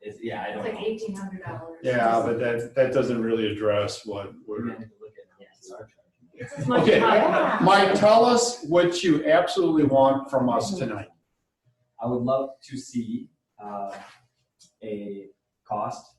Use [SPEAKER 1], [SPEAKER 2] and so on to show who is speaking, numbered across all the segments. [SPEAKER 1] It's, yeah, I
[SPEAKER 2] It's
[SPEAKER 1] don't
[SPEAKER 2] like
[SPEAKER 1] know.
[SPEAKER 2] eighteen hundred dollars.
[SPEAKER 3] Yeah, but that, that doesn't really address what
[SPEAKER 1] We're
[SPEAKER 3] we're.
[SPEAKER 1] gonna have to look at how much we are
[SPEAKER 2] It's as much
[SPEAKER 3] Okay.
[SPEAKER 2] as-
[SPEAKER 3] Mike, tell us what you absolutely want from us tonight.
[SPEAKER 1] I would love to see uh, a cost.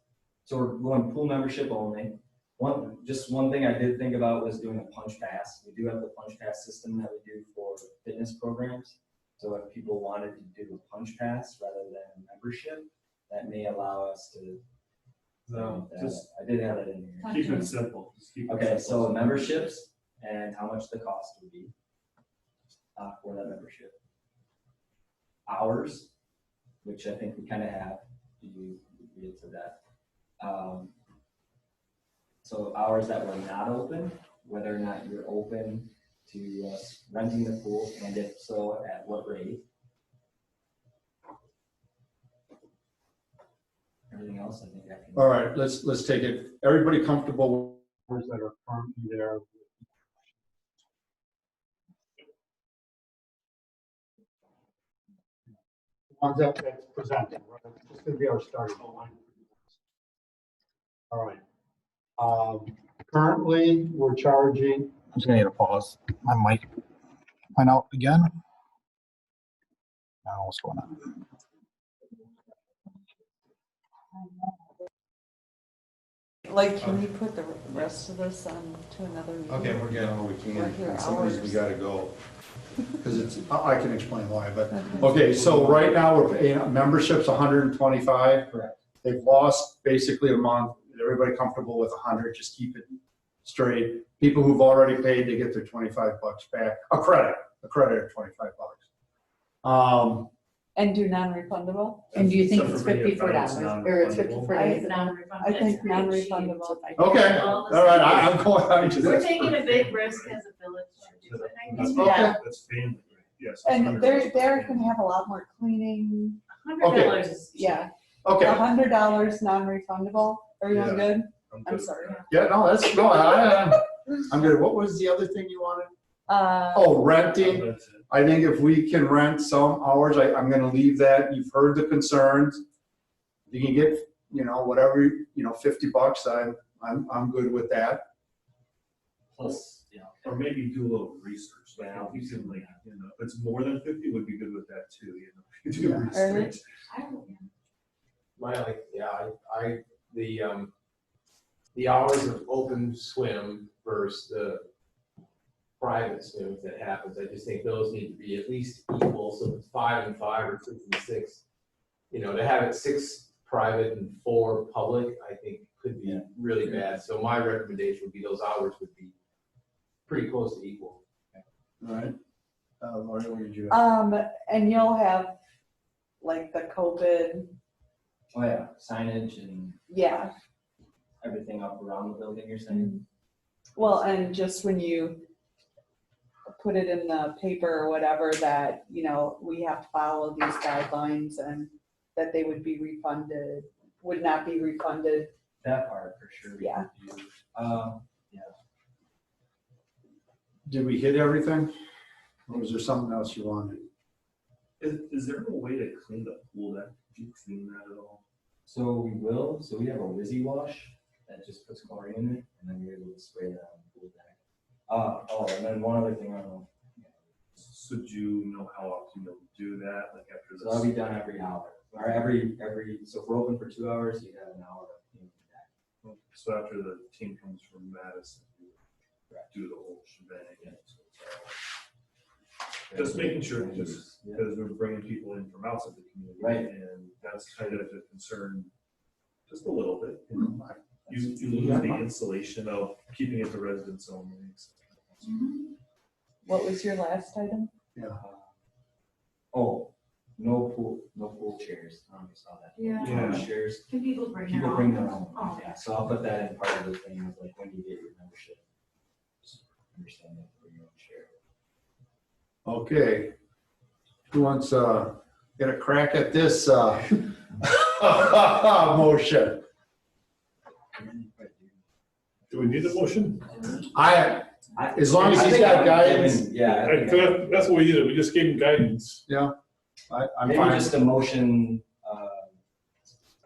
[SPEAKER 1] So we're going pool membership only. One, just one thing I did think about was doing a punch pass. We do have the punch pass system that we do for fitness programs. So if people wanted to do a punch pass rather than membership, that may allow us to.
[SPEAKER 4] So
[SPEAKER 1] that.
[SPEAKER 4] just
[SPEAKER 1] I did have it in here.
[SPEAKER 4] keep it simple. Just keep it
[SPEAKER 1] Oh, Okay, so
[SPEAKER 4] simple.
[SPEAKER 1] memberships and how much the cost would be uh, for that membership. Hours, which I think we kind of have, you get to that. Um, So hours that were not open, whether or not you're open to uh, renting the pool, and if so, at what rate? Everything else, I think I can.
[SPEAKER 3] All right, let's, let's take it. Everybody comfortable?
[SPEAKER 4] Words that are currently there.
[SPEAKER 5] ones that that's presented, right? It's just gonna be our starting line. All right. Um, currently, we're charging,
[SPEAKER 6] I'm just gonna need a pause. My mic went out again. I don't know what's going on.
[SPEAKER 7] Like, can we put the rest of this on to another meeting?
[SPEAKER 3] we're good. No, we
[SPEAKER 7] We're
[SPEAKER 3] can't.
[SPEAKER 7] here
[SPEAKER 3] In some reason, we
[SPEAKER 7] hours.
[SPEAKER 3] gotta go. Because it's, I I can explain why, but,
[SPEAKER 7] Okay.
[SPEAKER 3] okay, so right now, we're paying, membership's hundred and twenty-five.
[SPEAKER 1] Correct.
[SPEAKER 3] They've lost basically a month. Everybody comfortable with hundred, just keep it straight. People who've already paid, they get their twenty-five bucks back, a credit, a credit of twenty-five bucks. Um,
[SPEAKER 7] And do non-refundable?
[SPEAKER 8] And do you think
[SPEAKER 4] Except
[SPEAKER 8] it's
[SPEAKER 4] for me, if I
[SPEAKER 8] fifty-four
[SPEAKER 4] was
[SPEAKER 8] dollars, or it's
[SPEAKER 4] non-refundable.
[SPEAKER 8] fifty-four
[SPEAKER 2] But it's
[SPEAKER 8] days?
[SPEAKER 2] non-refundable.
[SPEAKER 7] I think
[SPEAKER 2] It's pretty cheap.
[SPEAKER 7] non-refundable.
[SPEAKER 3] okay, all right, I- I'm going, I'm just.
[SPEAKER 2] We're taking a big risk as a village. to do it. I
[SPEAKER 4] That's
[SPEAKER 2] think
[SPEAKER 3] Okay.
[SPEAKER 2] that
[SPEAKER 4] fine. That's family, right? yes. it's
[SPEAKER 7] And
[SPEAKER 4] hundred
[SPEAKER 7] they're,
[SPEAKER 4] percent
[SPEAKER 7] they're
[SPEAKER 4] family.
[SPEAKER 7] gonna have a lot more cleaning,
[SPEAKER 2] Hundred dollars is. cheap.
[SPEAKER 7] yeah.
[SPEAKER 3] Okay,
[SPEAKER 7] A hundred dollars non-refundable, everyone
[SPEAKER 4] Yeah.
[SPEAKER 7] good? I'm
[SPEAKER 4] good.
[SPEAKER 7] sorry.
[SPEAKER 3] yeah, no, that's, no, I, I- I'm good. What was the other thing you wanted?
[SPEAKER 7] Uh,
[SPEAKER 3] Oh, renting.
[SPEAKER 4] That's it.
[SPEAKER 3] I think if we can rent some hours, I, I'm gonna leave that, you've heard the concerns. You can get, you know, whatever, you know, fifty bucks, I'm, I'm, I'm good with that.
[SPEAKER 1] Plus, you know.
[SPEAKER 4] Or maybe do a little research, like,
[SPEAKER 1] Yeah.
[SPEAKER 4] if you can, like, you know, if it's more than fifty, would be good with that too, you know. You
[SPEAKER 3] Yeah.
[SPEAKER 4] Do research.
[SPEAKER 2] I don't know.
[SPEAKER 9] My, like, yeah, I, I, the, um, the hours of open swim versus the private swims that happens, I just think those need to be at least equal, so it's five and five or six and six. You know, to have it six private and four public, I think could be
[SPEAKER 1] Yeah.
[SPEAKER 9] really bad, so my recommendation would be those hours would be pretty close to equal.
[SPEAKER 3] Right. Uh, Lori, what did you?
[SPEAKER 7] um, and you'll have like the COVID,
[SPEAKER 1] Oh, yeah, signage and
[SPEAKER 7] yeah.
[SPEAKER 1] everything up around the building, you're saying?
[SPEAKER 7] Well, and just when you put it in the paper or whatever, that, you know, we have to follow these guidelines and that they would be refunded, would not be refunded.
[SPEAKER 1] That part for sure. we
[SPEAKER 7] Yeah.
[SPEAKER 1] could do. Um,
[SPEAKER 3] Did we hit everything? Or was there something else you wanted?
[SPEAKER 4] Is, is there a way to clean the pool that, do you clean that at all?
[SPEAKER 1] so we will, so we have a Wizzy wash that just puts chlorine in it, and then you're able to spray that on the pool deck. Uh, oh, and then one other thing I don't know.
[SPEAKER 4] So do you know how often you'll do that, like after
[SPEAKER 1] So that'll
[SPEAKER 4] this?
[SPEAKER 1] be done every hour, or every, every, so if we're open for two hours, you have an hour. of cleaning the deck.
[SPEAKER 4] So after the team comes from Madison, you
[SPEAKER 1] Correct.
[SPEAKER 4] do the whole shebang. Just making sure, just
[SPEAKER 1] Yeah.
[SPEAKER 4] because we're bringing people in from outside the community.
[SPEAKER 1] Right.
[SPEAKER 4] And that's kind of a concern, just a little bit. you know.
[SPEAKER 3] Hmm, I-
[SPEAKER 4] You, you lose the insulation of keeping it to residents only.
[SPEAKER 7] What was your last item?
[SPEAKER 1] Uh, Oh, no pool, no pool chairs, I don't know if you saw that.
[SPEAKER 2] Yeah.
[SPEAKER 4] Yeah.
[SPEAKER 1] No Chairs,
[SPEAKER 2] Can people bring their
[SPEAKER 1] People
[SPEAKER 2] own?
[SPEAKER 1] bring their own,
[SPEAKER 2] Oh.
[SPEAKER 1] yeah, so I'll put that in part of the thing, of like, when you get your membership. just Understand that for your own share.
[SPEAKER 3] Okay. Who wants, uh, get a crack at this, uh, motion?
[SPEAKER 4] Do we need a motion?
[SPEAKER 3] I, as long as he's got guidance,
[SPEAKER 1] Yeah. I think I-
[SPEAKER 4] That's what we did, we just gave them guidance.
[SPEAKER 3] I, I'm
[SPEAKER 1] Maybe
[SPEAKER 3] fine.
[SPEAKER 1] just a motion